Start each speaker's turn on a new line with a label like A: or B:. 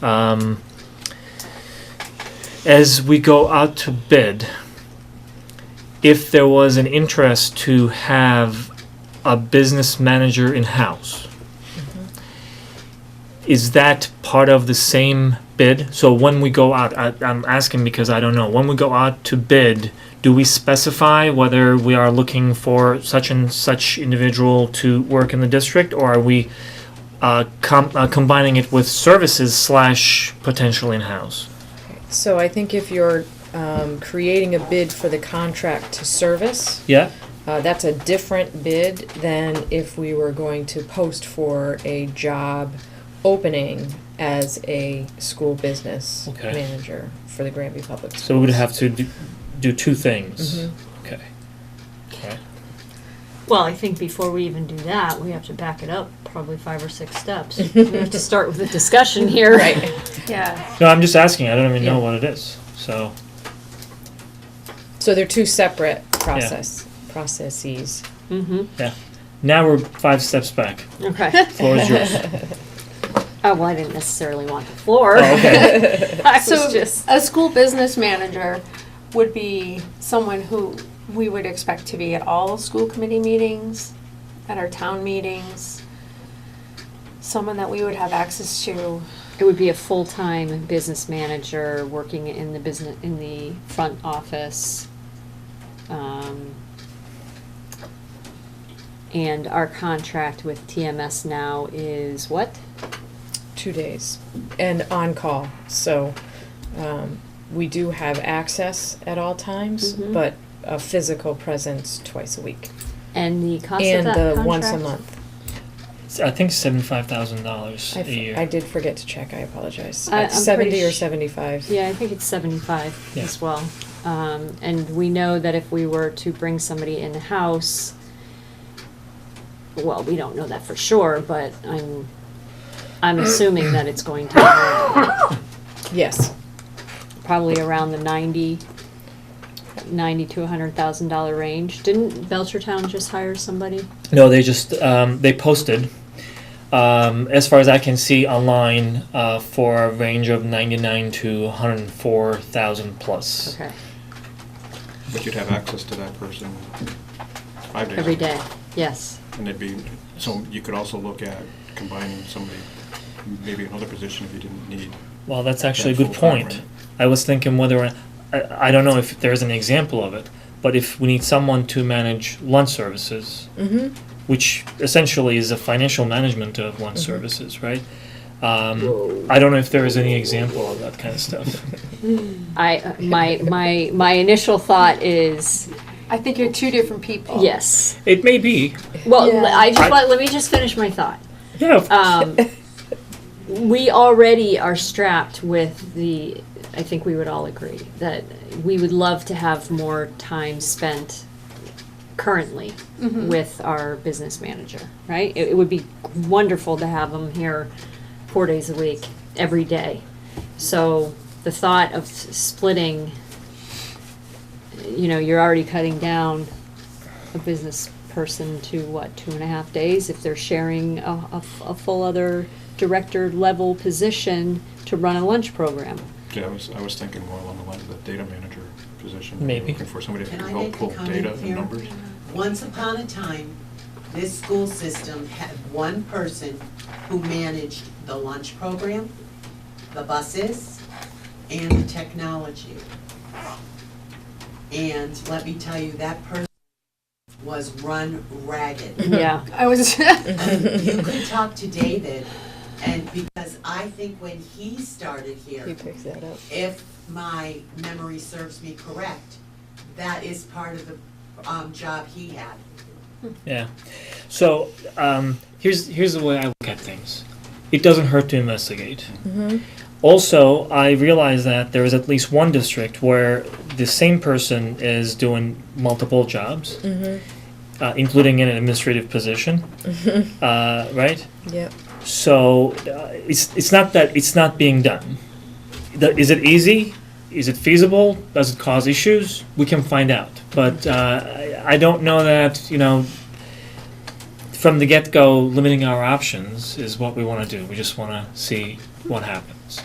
A: Um, as we go out to bid, if there was an interest to have a business manager in-house, is that part of the same bid? So when we go out, I, I'm asking because I don't know, when we go out to bid, do we specify whether we are looking for such and such individual to work in the district, or are we uh, com- uh, combining it with services slash potential in-house?
B: So I think if you're um, creating a bid for the contract to service,
A: Yeah.
B: uh, that's a different bid than if we were going to post for a job opening as a school business
A: Okay.
B: manager for the Granby Public Schools.
A: So we would have to do, do two things.
B: Mhm.
A: Okay. Okay.
C: Well, I think before we even do that, we have to back it up probably five or six steps. We have to start with a discussion here.
B: Right,
D: Yeah,
A: No, I'm just asking. I don't even know
B: Yeah.
A: what it is. So
B: so they're two separate process, processes.
C: Mm-hmm,
A: now we're five steps back.
C: okay.
A: Floor is yours.
C: Oh, well, I didn't necessarily want the floor.
A: oh, okay.
C: I
D: so
C: was just,
D: a school business manager would be someone who we would expect to be at all school committee meetings, at our town meetings. Someone that we would have access to,
C: it would be a full-time business manager working in the business, in the front office. Um, And our contract with TMS now is what?
B: two days and on call. So um, we do have access at all times,
C: Mhm.
B: but a physical presence twice a week
C: And the cost of
B: and
C: that
B: the
C: contract?
B: once a month.
A: I think seventy-five thousand dollars
B: I,
A: a
B: f-
A: year.
B: I did forget to check. I apologize.
C: I-
B: At
C: Uh, I'm
B: Seventy
C: pretty
B: or
C: sh-
B: seventy-five.
C: Yeah, I think it's seventy-five
A: Yeah.
C: as well. Um, and we know that if we were to bring somebody in-house, well, we don't know that for sure, but I'm, I'm assuming that it's going to
B: Yes.
C: be probably around the ninety, ninety to a hundred thousand dollar range. Didn't Belchertown just hire somebody?
A: No, they just um, they posted. Um, as far as I can see online, uh, for a range of ninety-nine to one hundred four thousand plus.
C: Okay,
E: But you'd have access to that person five days. a
C: every
E: week.
C: day, yes.
E: And it'd be, so you could also look at combining somebody, maybe another position if you didn't need.
A: Well, that's actually a
E: that
A: good
E: full-time,
A: point.
E: right?
A: I was thinking whether I, I, I don't know if there is an example of it, but if we need someone to manage lunch services,
B: Mm-hmm.
A: which essentially is a financial management of lunch services, right? Um, I don't know if there is any example of that kind of stuff.
C: I, uh, my, my, my initial thought is,
D: I think you're two different people.
C: yes.
A: it may be.
C: Well,
D: Oh. Yeah.
C: I
A: I-
C: just, let let me just finish my thought.
A: Yeah. of-
C: um, we already are strapped with the i think we would all agree that we would love to have more time spent currently with our business manager right it, it would be wonderful to have them here four days a week every day so the thought of s- splitting you know you're already cutting down a business person to what, two and a half days if they're sharing a, a f- a full other director level position to run a lunch program.
E: Yeah, I was, I was thinking more along the lines of the data manager position. You're
A: Maybe.
E: Looking for somebody who
F: Can
E: can
F: I
E: help
F: make a
E: pull
F: comment
E: data and
F: here?
E: numbers.
F: Once upon a time, this school system had one person who managed the lunch program, the buses, and the technology. And let me tell you, that person was run ragged.
C: Yeah.
D: I was,
F: You could talk to David, and because I think when he started here,
B: He picked that up.
F: if my memory serves me correct, that is part of the um, job he had.
A: yeah. So um, here's here's the way I look at things. It doesn't hurt to investigate.
B: Mm-hmm.
A: Also, I realize that there is at least one district where the same person is doing multiple jobs,
B: Mm-hmm.
A: uh, including an administrative position, uh, right?
B: Yep.
A: So uh, it's it's not that it's not being done. The- Is it easy? Is it feasible? Does it cause issues? We can find out. But uh, I, I don't know that you know. From the get go, limiting our options is what we want to do. We just want to see what happens.